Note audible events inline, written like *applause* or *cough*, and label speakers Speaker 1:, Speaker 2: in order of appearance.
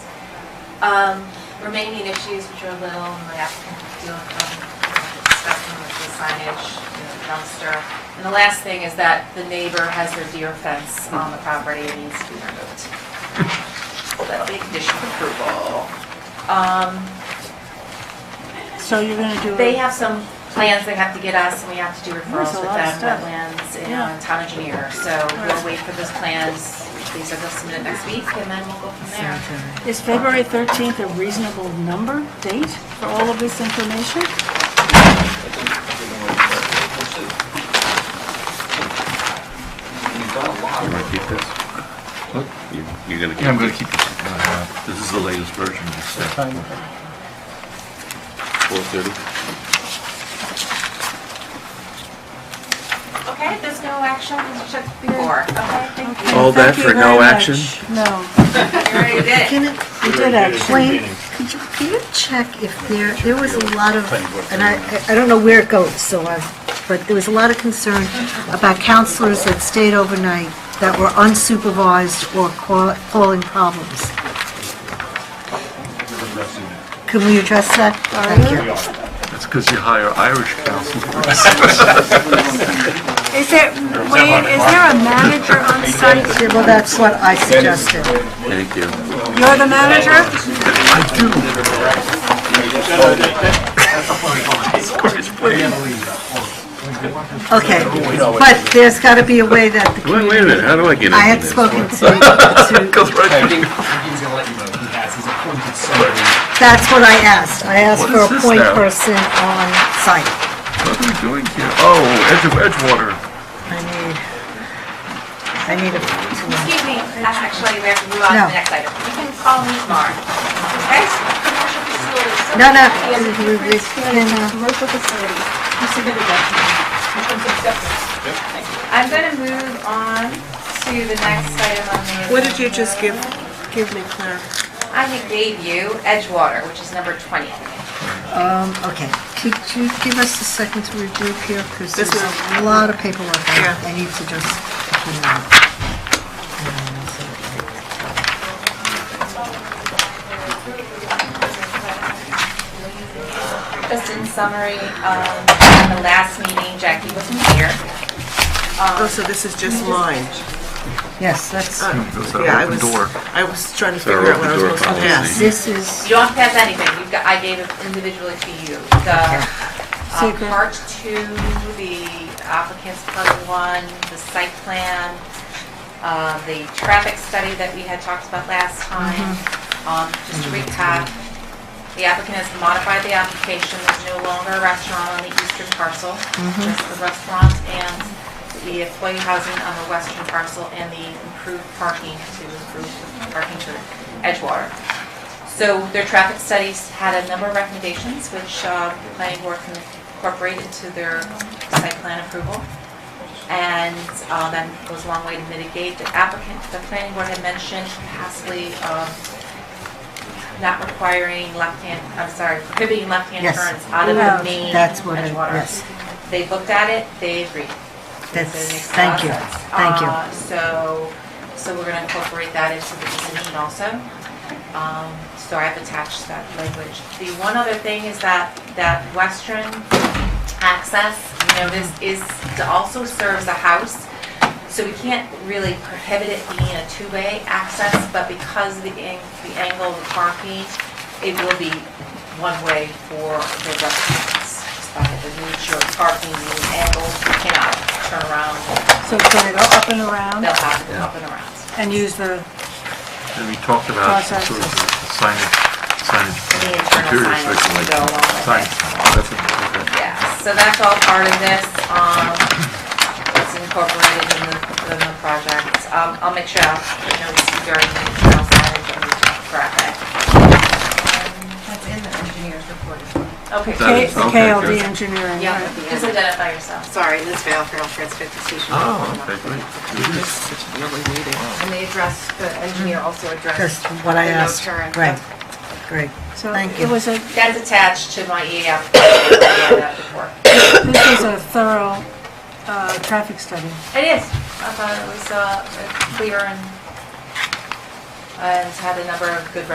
Speaker 1: Um, remaining issues which are little, and the applicant dealing from discussing with the signage, you know, dumpster. And the last thing is that the neighbor has their deer fence on the property and needs to be removed. So that'll be a condition of approval. Um,
Speaker 2: So you're going to do
Speaker 1: they
Speaker 2: it?
Speaker 1: have some plans they have to get us, and we have to do referrals
Speaker 2: There's
Speaker 1: with
Speaker 2: a lot of
Speaker 1: them,
Speaker 2: stuff.
Speaker 1: wetlands,
Speaker 2: Yeah.
Speaker 1: and uh, town engineer. So we'll wait for those plans. These are they'll submit next week, and then we'll go from there.
Speaker 2: Is February 13th a reasonable number, date for all of this information?
Speaker 3: You've done a lot.
Speaker 4: You want to keep this? You- You're going to keep?
Speaker 5: Yeah, I'm gonna
Speaker 4: this?
Speaker 5: keep
Speaker 4: This is the latest version of this. Four thirty?
Speaker 1: Okay, there's no action, it's just before. Okay, thank you.
Speaker 4: All that
Speaker 2: Thank you
Speaker 4: for no
Speaker 2: very much.
Speaker 4: action?
Speaker 2: No.
Speaker 1: You already did. *laughs*
Speaker 6: Can it,
Speaker 2: We did actually.
Speaker 6: Wayne, could you, can you check if there, there was a lot of, and I, I don't know where it goes, so I, but there was a lot of concern about counselors that stayed overnight that were unsupervised or ca- causing problems. Can we address that? Thank you.
Speaker 5: That's because you hire Irish counsel.
Speaker 2: Is there, Wayne, is there a manager on site?
Speaker 6: Well, that's what I suggested.
Speaker 4: Thank you.
Speaker 2: You're the manager?
Speaker 6: Okay, but there's got to be a way that, the-
Speaker 4: Wait, wait a minute, how do I get into this?
Speaker 6: I had spoken
Speaker 4: *laughs*
Speaker 6: to,
Speaker 5: *laughs*
Speaker 6: to
Speaker 4: Goes right to you.
Speaker 3: He's gonna let you know, he has, he's appointed somebody.
Speaker 6: That's what I asked. I asked
Speaker 4: What
Speaker 6: for
Speaker 4: is
Speaker 6: a
Speaker 4: this
Speaker 6: point
Speaker 4: now?
Speaker 6: person on site.
Speaker 4: What are we doing here? Oh, Edge of Edgewater.
Speaker 6: I need, I need a,
Speaker 1: Excuse me, uh, actually, we have to move on to
Speaker 6: No.
Speaker 1: the next item. You can call me tomorrow, okay? Commercial facilities. So
Speaker 6: no, no.
Speaker 1: we have to-
Speaker 6: Can, uh,
Speaker 1: I'm gonna move on to the next item on the.
Speaker 7: What did you just give,
Speaker 1: agenda.
Speaker 7: give me, Claire?
Speaker 1: I had gave you Edgewater, which is number 20.
Speaker 6: Um, okay. Could you give us a second to review here? Because
Speaker 7: This
Speaker 6: there's
Speaker 7: is-
Speaker 6: a lot of paperwork. I
Speaker 7: Yeah.
Speaker 6: I need to just. clean it up.
Speaker 1: Just in summary, um, at the last meeting, Jackie wasn't here.
Speaker 7: Oh, so this is just mine?
Speaker 6: Yes, that's,
Speaker 5: Goes
Speaker 7: Yeah, I
Speaker 5: that open
Speaker 7: was-
Speaker 5: door.
Speaker 7: I was trying to
Speaker 4: So our
Speaker 7: figure out
Speaker 4: open
Speaker 7: what I was
Speaker 4: door
Speaker 7: supposed to
Speaker 4: policy.
Speaker 7: pass.
Speaker 6: this is,
Speaker 1: You don't have to pass anything, you've got, I gave it individually to you. The uh,
Speaker 2: Secret.
Speaker 1: part two, the applicant's part one, the site plan, uh, the traffic study that we had talked about last time. Um, Just to recap, the applicant has modified the application, there's no longer a restaurant on the eastern parcel, just the restaurant and the employee housing on the western parcel and the improved parking to improve the parking to Edgewater. So their traffic studies had a number of recommendations, which uh, the planning board can incorporate into their site plan approval. And uh, that goes a long way to mitigate. The applicant, the planning board had mentioned possibly um, not requiring left-hand, I'm sorry, prohibiting left-hand
Speaker 6: Yes.
Speaker 1: turns out of the
Speaker 2: Allowed.
Speaker 1: main
Speaker 6: that's what, I
Speaker 1: Edgewater.
Speaker 6: yes.
Speaker 1: They looked at it, they agreed.
Speaker 6: That's,
Speaker 1: So it makes a lot
Speaker 6: thank
Speaker 1: of
Speaker 6: you,
Speaker 1: sense.
Speaker 6: thank you.
Speaker 1: Uh, So, so we're gonna incorporate that into the decision also. Um, So I've attached that language. The one other thing is that, that western access, you know, this is, also serves a house. So we can't really prohibit it being a two-way access, but because of the ang- the angle of the parking, it will be one-way for the restaurants. Just by the nature of parking, the angles, you cannot turn around,
Speaker 2: So turn it up and around
Speaker 1: they'll have to go up and around.
Speaker 2: and use the,
Speaker 5: And we talked about
Speaker 2: Process.
Speaker 5: sort of signage,
Speaker 1: The
Speaker 5: signage.
Speaker 1: internal
Speaker 5: interior
Speaker 1: signage
Speaker 5: section,
Speaker 1: will
Speaker 5: like
Speaker 1: go along with it.
Speaker 5: Signage, Oh, that's it, okay.
Speaker 1: Yeah, so that's all part of this, um, it's incorporated in the, in the project. Um, I'll make sure I'll put notes during the email signage and the graphic. That's in the engineer's report as well. Okay,
Speaker 4: That
Speaker 2: K-
Speaker 4: is- okay,
Speaker 2: KLD
Speaker 4: good.
Speaker 2: engineering,
Speaker 1: yeah,
Speaker 2: right?
Speaker 1: just identify yourself.
Speaker 8: Sorry, Liz Vale, Feral Transportation Station.
Speaker 5: Oh, okay, great.
Speaker 7: This is really needed.
Speaker 8: And they addressed, the engineer also
Speaker 6: Just
Speaker 8: addressed.
Speaker 6: what I
Speaker 8: the no
Speaker 6: asked,
Speaker 8: turn.
Speaker 6: right, great.
Speaker 2: So
Speaker 6: Thank
Speaker 2: it
Speaker 6: you.
Speaker 2: was a,
Speaker 1: That's attached to my EA application, I that before.
Speaker 2: this was a thorough uh, traffic study.
Speaker 1: It is. I thought it was, uh, clear and, and had a number of good